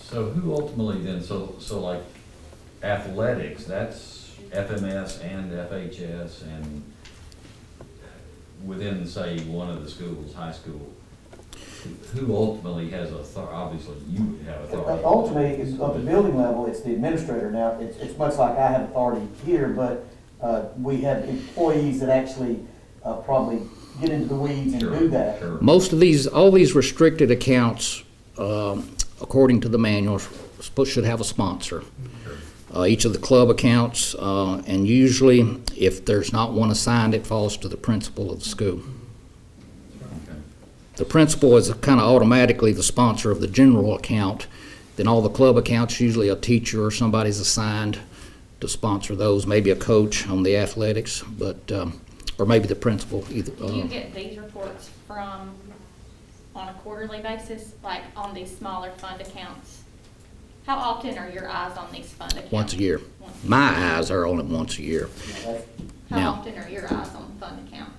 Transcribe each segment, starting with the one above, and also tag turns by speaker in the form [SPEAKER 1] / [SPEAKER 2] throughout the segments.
[SPEAKER 1] So who ultimately then, so, so like athletics, that's FMS and FHS and within, say, one of the schools, high school, who ultimately has authority, obviously you would have authority.
[SPEAKER 2] Uh, Ultimately, it's at the building level, it's the administrator. Now, it's, it's much like I have authority here, but, uh, we have employees that actually, uh, probably get into the weeds and
[SPEAKER 1] Sure,
[SPEAKER 2] do that.
[SPEAKER 1] Sure,
[SPEAKER 3] Most of these, all these restricted accounts, um, according to the manuals, supposed- should have a sponsor. Uh, Each of the club accounts, uh, and usually if there's not one assigned, it falls to the principal of the school.
[SPEAKER 1] okay.
[SPEAKER 3] The principal is kind of automatically the sponsor of the general account. Then all the club accounts, usually a teacher or somebody's assigned to sponsor those, maybe a coach on the athletics, but, um, or maybe the principal either.
[SPEAKER 4] Do you
[SPEAKER 3] uh,
[SPEAKER 4] get these reports from, on a quarterly basis, like on these smaller fund accounts? How often are your eyes on these fund accounts?
[SPEAKER 3] Once a year.
[SPEAKER 4] Once.
[SPEAKER 3] My eyes are on it once a year.
[SPEAKER 2] That's
[SPEAKER 3] now.
[SPEAKER 4] How often are your eyes on fund accounts?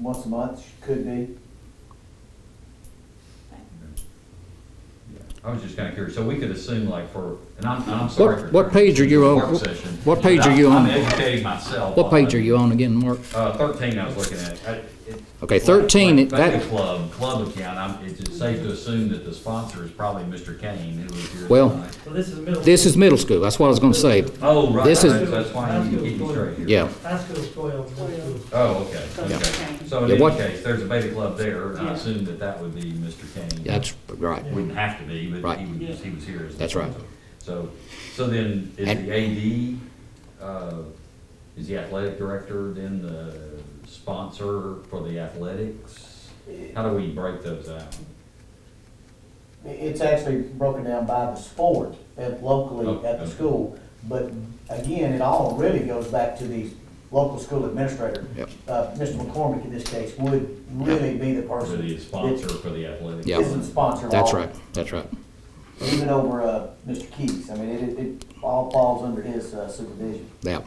[SPEAKER 2] once a month, could be.
[SPEAKER 1] I was just kinda curious, so we could assume like for, and I'm, and I'm sorry for.
[SPEAKER 3] What, what page are you on?
[SPEAKER 1] Work session.
[SPEAKER 3] What page are you
[SPEAKER 1] I'm
[SPEAKER 3] on?
[SPEAKER 1] educating myself.
[SPEAKER 3] What page are you on again, Mark?
[SPEAKER 1] Uh, thirteen I was looking at. I- it-
[SPEAKER 3] Okay, 13,
[SPEAKER 1] Like- like
[SPEAKER 3] that-
[SPEAKER 1] the Club, club account, I'm, it's it's safe to assume that the sponsor is probably Mr. Kane, who was here
[SPEAKER 3] Well-
[SPEAKER 1] tonight.
[SPEAKER 5] Well, this is middle.
[SPEAKER 3] This is middle school, that's what I was gonna say.
[SPEAKER 1] Oh, right,
[SPEAKER 3] This is-
[SPEAKER 1] right, that's why you keep me straight here.
[SPEAKER 3] Yeah,
[SPEAKER 5] High school's twelve, middle school's
[SPEAKER 1] Oh, okay,
[SPEAKER 3] Yeah.
[SPEAKER 1] okay. So
[SPEAKER 3] Yeah,
[SPEAKER 1] in
[SPEAKER 3] what-
[SPEAKER 1] any case, there's a beta club there, and I assume that that would be Mr. Kane.
[SPEAKER 3] that's right.
[SPEAKER 1] Wouldn't have to be, but
[SPEAKER 3] Right.
[SPEAKER 1] he was, he was here. as the
[SPEAKER 3] That's right.
[SPEAKER 1] sponsor. So, so then, is
[SPEAKER 3] And-
[SPEAKER 1] the AD, uh, is the athletic director then the sponsor for the athletics? How do we break those out?
[SPEAKER 2] It's actually broken down by the sport at locally at
[SPEAKER 1] Oh,
[SPEAKER 2] the
[SPEAKER 1] okay.
[SPEAKER 2] school. But again, it all really goes back to the local school administrator.
[SPEAKER 3] Yep.
[SPEAKER 2] Uh, Mr. McCormick in this case would really be the person.
[SPEAKER 1] For the sponsor for the athletics?
[SPEAKER 3] Yeah.
[SPEAKER 2] that Isn't sponsored.
[SPEAKER 3] That's right, that's right.
[SPEAKER 2] Even over, uh, Mr. Keys. I mean, it, it- it all falls under his uh, supervision.
[SPEAKER 3] Yeah.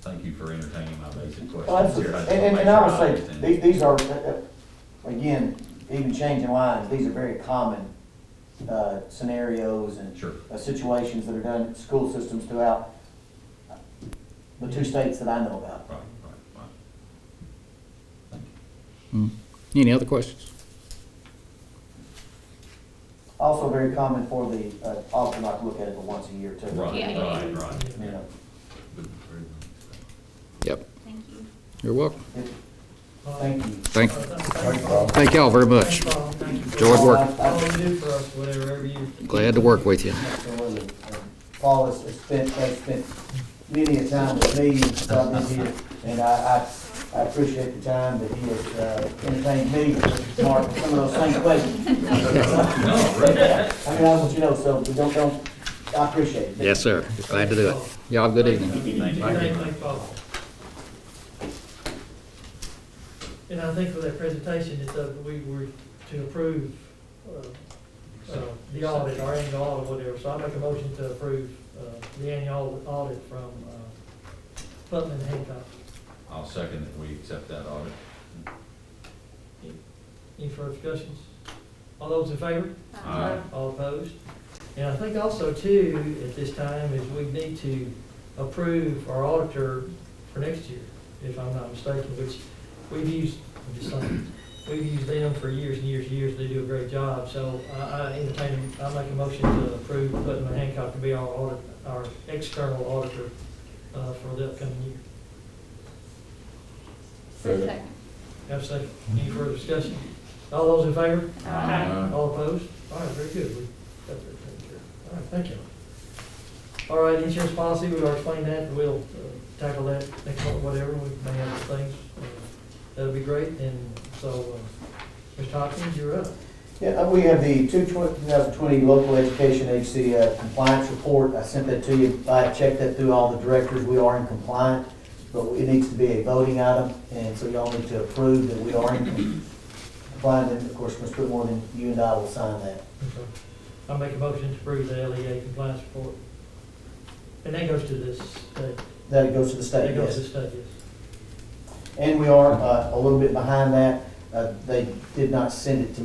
[SPEAKER 1] Thank you for entertaining my basic
[SPEAKER 2] Well,
[SPEAKER 1] questions
[SPEAKER 2] that's,
[SPEAKER 1] here. just wanna
[SPEAKER 2] and, and-
[SPEAKER 1] make
[SPEAKER 2] and I
[SPEAKER 1] sure
[SPEAKER 2] would say,
[SPEAKER 1] understand.
[SPEAKER 2] these, these are, uh, uh, again, even changing lines, these are very common, uh, scenarios and
[SPEAKER 1] Sure.
[SPEAKER 2] uh, situations that are done in school systems throughout the two states that I know about.
[SPEAKER 1] Right, right, right.
[SPEAKER 3] Mm. Any other questions?
[SPEAKER 2] Also very common for the, uh, often I look at it the once a year too.
[SPEAKER 1] Right,
[SPEAKER 4] Yeah.
[SPEAKER 1] right, right.
[SPEAKER 2] You know,
[SPEAKER 3] Yep,
[SPEAKER 4] Thank you.
[SPEAKER 3] you're welcome.
[SPEAKER 2] it- thank you.
[SPEAKER 3] Thank,
[SPEAKER 5] Uh, Thank Paul.
[SPEAKER 3] thank y'all very much.
[SPEAKER 5] Thank Paul. Thank you. for
[SPEAKER 3] Enjoyed work.
[SPEAKER 2] I- I-
[SPEAKER 5] All you do for us, whatever, every year.
[SPEAKER 3] Glad to work with you.
[SPEAKER 2] Absolutely. And Paul has has spent, has spent many a time with me since I've been here, and I, I, I appreciate the time that he has uh, entertained me, Mark, with some of those same questions.
[SPEAKER 1] No, right.
[SPEAKER 2] I mean, I want you to know, so we don't, don't, I appreciate it.
[SPEAKER 3] Yes, sir, glad to do it. Y'all, good evening.
[SPEAKER 5] Thank you.
[SPEAKER 1] Thank you.
[SPEAKER 5] Thank Paul. And I think for that presentation, it's, uh, we were to approve, uh, uh, the audit, our annual audit, whatever, so I make a motion to approve, uh, the annual audit from, uh, Putnam and Hancock.
[SPEAKER 1] I'll second that we accept that audit.
[SPEAKER 5] Any further discussions? All those in favor?
[SPEAKER 1] Aye.
[SPEAKER 4] Uh,
[SPEAKER 5] All opposed? And I think also too, at this time, is we need to approve our auditor for next year, if I'm not mistaken, which we've used, I'm just saying, we've used them for years and years and years, they do a great job, so I, I entertain, I make a motion to approve Putnam and Hancock to be our audit, our external auditor, uh, for the upcoming year.
[SPEAKER 4] Second.
[SPEAKER 5] Have a second, any further discussion? All those in favor?
[SPEAKER 4] Aye.
[SPEAKER 5] All opposed? All right, very good. We got that taken care of. All right, thank you. All right, insurance policy, we already explained that, we'll uh, tackle that next month, whatever, we may have other things. uh, That'll be great, and so, uh, Mr. Hopkins, you're up.
[SPEAKER 2] Yeah, uh, we have the 2020 Local Education HC uh, Compliance Report. I sent that to you. I checked that through all the directors. We are in compliance, but it needs to be a voting item, and so y'all need to approve that we are in compliance. And of course, Mr. Whitmore, and you and I will sign that.
[SPEAKER 5] I make a motion to approve the LEA compliance report. And that goes to this, state.
[SPEAKER 2] That goes to the
[SPEAKER 5] that
[SPEAKER 2] state,
[SPEAKER 5] goes to
[SPEAKER 2] yes.
[SPEAKER 5] the state, yes.
[SPEAKER 2] And we are uh, a little bit behind that. Uh, They did not send it to